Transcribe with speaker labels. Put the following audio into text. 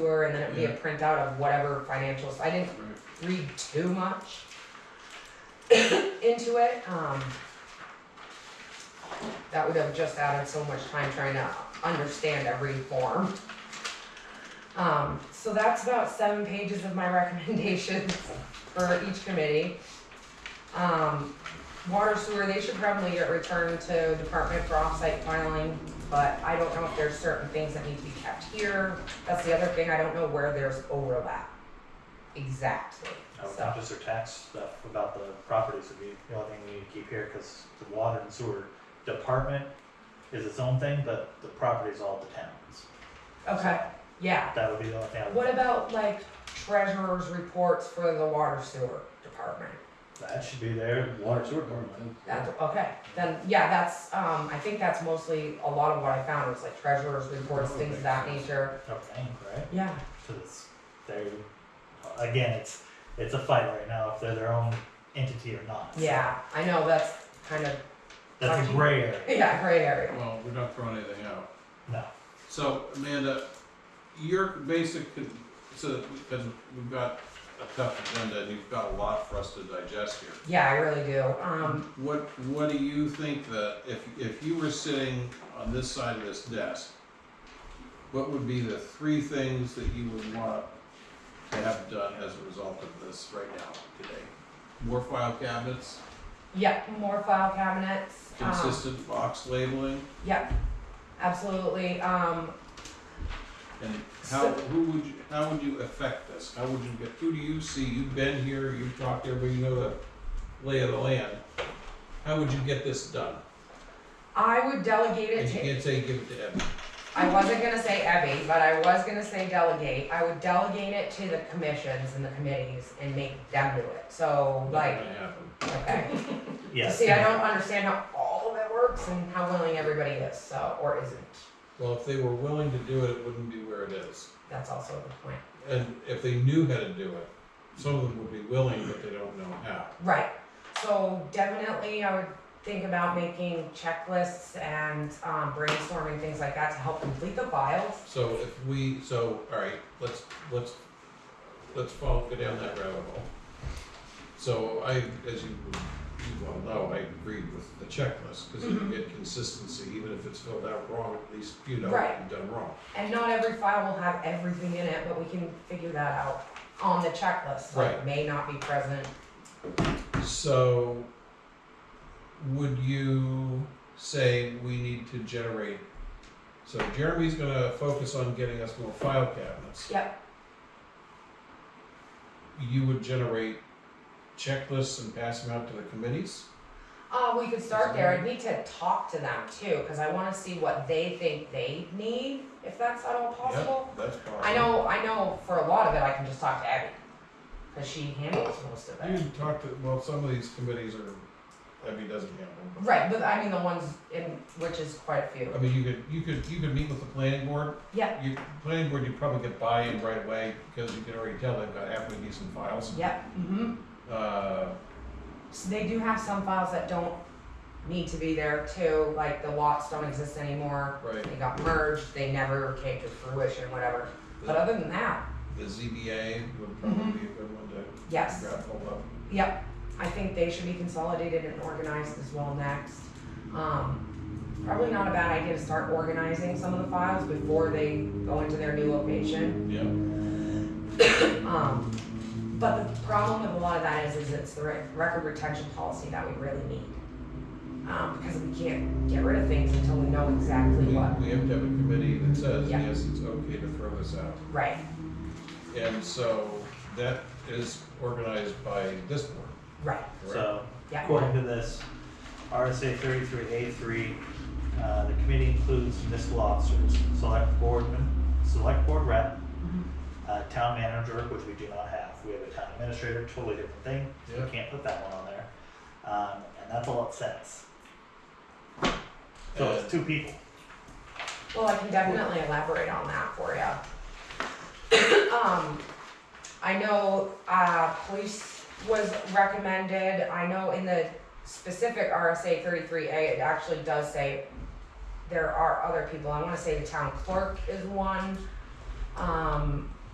Speaker 1: were, and then it'd be a printout of whatever financials, I didn't read too much into it, um. That would have just added so much time trying to understand every form. Um, so that's about seven pages of my recommendations for each committee. Um, water sewer, they should probably get returned to department for offsite filing, but I don't know if there's certain things that need to be kept here. That's the other thing, I don't know where there's overlap exactly,
Speaker 2: I would
Speaker 1: so.
Speaker 2: think just their tax stuff about the properties would be the only thing we need to keep here, cause the water and sewer department is its own thing, but the property's all the towns.
Speaker 1: Okay, yeah,
Speaker 2: That would be the only thing I
Speaker 1: What
Speaker 2: would,
Speaker 1: about like treasurer's reports for the water sewer department?
Speaker 2: that should be there, water sewer department.
Speaker 1: That's, okay, then, yeah, that's, um, I think that's mostly, a lot of what I found was like treasurer's reports, things of that nature.
Speaker 2: I think, right?
Speaker 1: Yeah,
Speaker 2: Cause it's, they again, it's, it's a fight right now if they're their own entity or not. So
Speaker 1: yeah, I know, that's kind of,
Speaker 2: That's a gray area,
Speaker 1: yeah, gray area.
Speaker 3: Well, we're not throwing anything out.
Speaker 2: no,
Speaker 3: So Amanda, your basic, con- so, because we've got a tough agenda and you've got a lot for us to digest here.
Speaker 1: Yeah, I really do, um,
Speaker 3: What, what do you think that, if, if you were sitting on this side of this desk, what would be the three things that you would want to have done as a result of this right now, today? More file cabinets,
Speaker 1: yeah, more file cabinets, um,
Speaker 3: consistent box labeling,
Speaker 1: yeah, absolutely, um,
Speaker 3: and how,
Speaker 1: So-
Speaker 3: who would you, how would you affect this? How would you get, who do you see, you've been here, you've talked to everybody, you know the lay of the land. How would you get this done?
Speaker 1: I would delegate it
Speaker 3: And
Speaker 1: to
Speaker 3: you can't say give it to Evan.
Speaker 1: I wasn't gonna say Evy, but I was gonna say delegate. I would delegate it to the commissions and the committees and make them do it. So like, okay.
Speaker 2: yes.
Speaker 1: See, I don't understand how all of it works and how willing everybody is, so, or isn't.
Speaker 3: Well, if they were willing to do it, it wouldn't be where it is.
Speaker 1: That's also the point.
Speaker 3: And if they knew how to do it, some of them would be willing, but they don't know how.
Speaker 1: Right. So definitely I would think about making checklists and um, brainstorming things like that to help complete the files.
Speaker 3: So if we, so, all right, let's, let's, let's follow, go down that rabbit hole. So I, as you, you well know, I agree with the checklist, because you
Speaker 1: Mhm.
Speaker 3: get consistency, even if it's filled out wrong, at least you know what
Speaker 1: Right.
Speaker 3: you've done wrong.
Speaker 1: And not every file will have everything in it, but we can figure that out on the checklist. Like,
Speaker 3: Right.
Speaker 1: May not be present,
Speaker 3: So, would you say we need to generate, so Jeremy's gonna focus on getting us more file cabinets.
Speaker 1: Yep.
Speaker 3: You would generate checklists and pass them out to the committees?
Speaker 1: Uh, we could start there. I need to talk to them too, because I want to see what they think they need, if that's at all possible.
Speaker 3: Yep, that's possible.
Speaker 1: I know, I know for a lot of it, I can just talk to Abby, because she handles most of
Speaker 3: You
Speaker 1: it.
Speaker 3: can talk to, well, some of these committees are, I mean, doesn't handle them.
Speaker 1: Right, but I mean the ones in, which is quite a few.
Speaker 3: I mean, you could, you could, you could meet with the planning board.
Speaker 1: Yeah.
Speaker 3: You, planning board, you probably get buy-in right away, because you can already tell they've got halfway decent files.
Speaker 1: Yep, mm-hmm.
Speaker 3: Uh,
Speaker 1: So they do have some files that don't need to be there too, like the lots don't exist anymore.
Speaker 3: Right.
Speaker 1: They got merged, they never came to fruition, whatever. But other than that,
Speaker 3: The ZBA would probably be a good one to
Speaker 1: yes.
Speaker 3: grab hold of.
Speaker 1: Yep, I think they should be consolidated and organized as well next. Um, probably not a bad idea to start organizing some of the files before they go into their new location.
Speaker 3: Yeah.
Speaker 1: Um, but the problem with a lot of that is, is it's the re- record retention policy that we really need. Um, because we can't get rid of things until we know exactly
Speaker 3: We,
Speaker 1: what,
Speaker 3: we have to have a committee that says,
Speaker 1: Yeah.
Speaker 3: yes, it's okay to throw this out.
Speaker 1: right,
Speaker 3: And so that is organized by this board,
Speaker 1: right,
Speaker 3: correct?
Speaker 2: So,
Speaker 1: yeah.
Speaker 2: according to this, RSA thirty-three A three, uh, the committee includes municipal officers, select boardman, select board rep,
Speaker 1: Mhm.
Speaker 2: uh, town manager, which we do not have, we have a town administrator, totally different thing, so
Speaker 3: Yeah.
Speaker 2: we can't put that one on there. Um, and that's all it says, so
Speaker 3: And
Speaker 2: it's two people,
Speaker 1: Well, I can definitely elaborate on that for you. um, I know uh, police was recommended. I know in the specific RSA 33A, it actually does say there are other people. I want to say the town clerk is one. Um,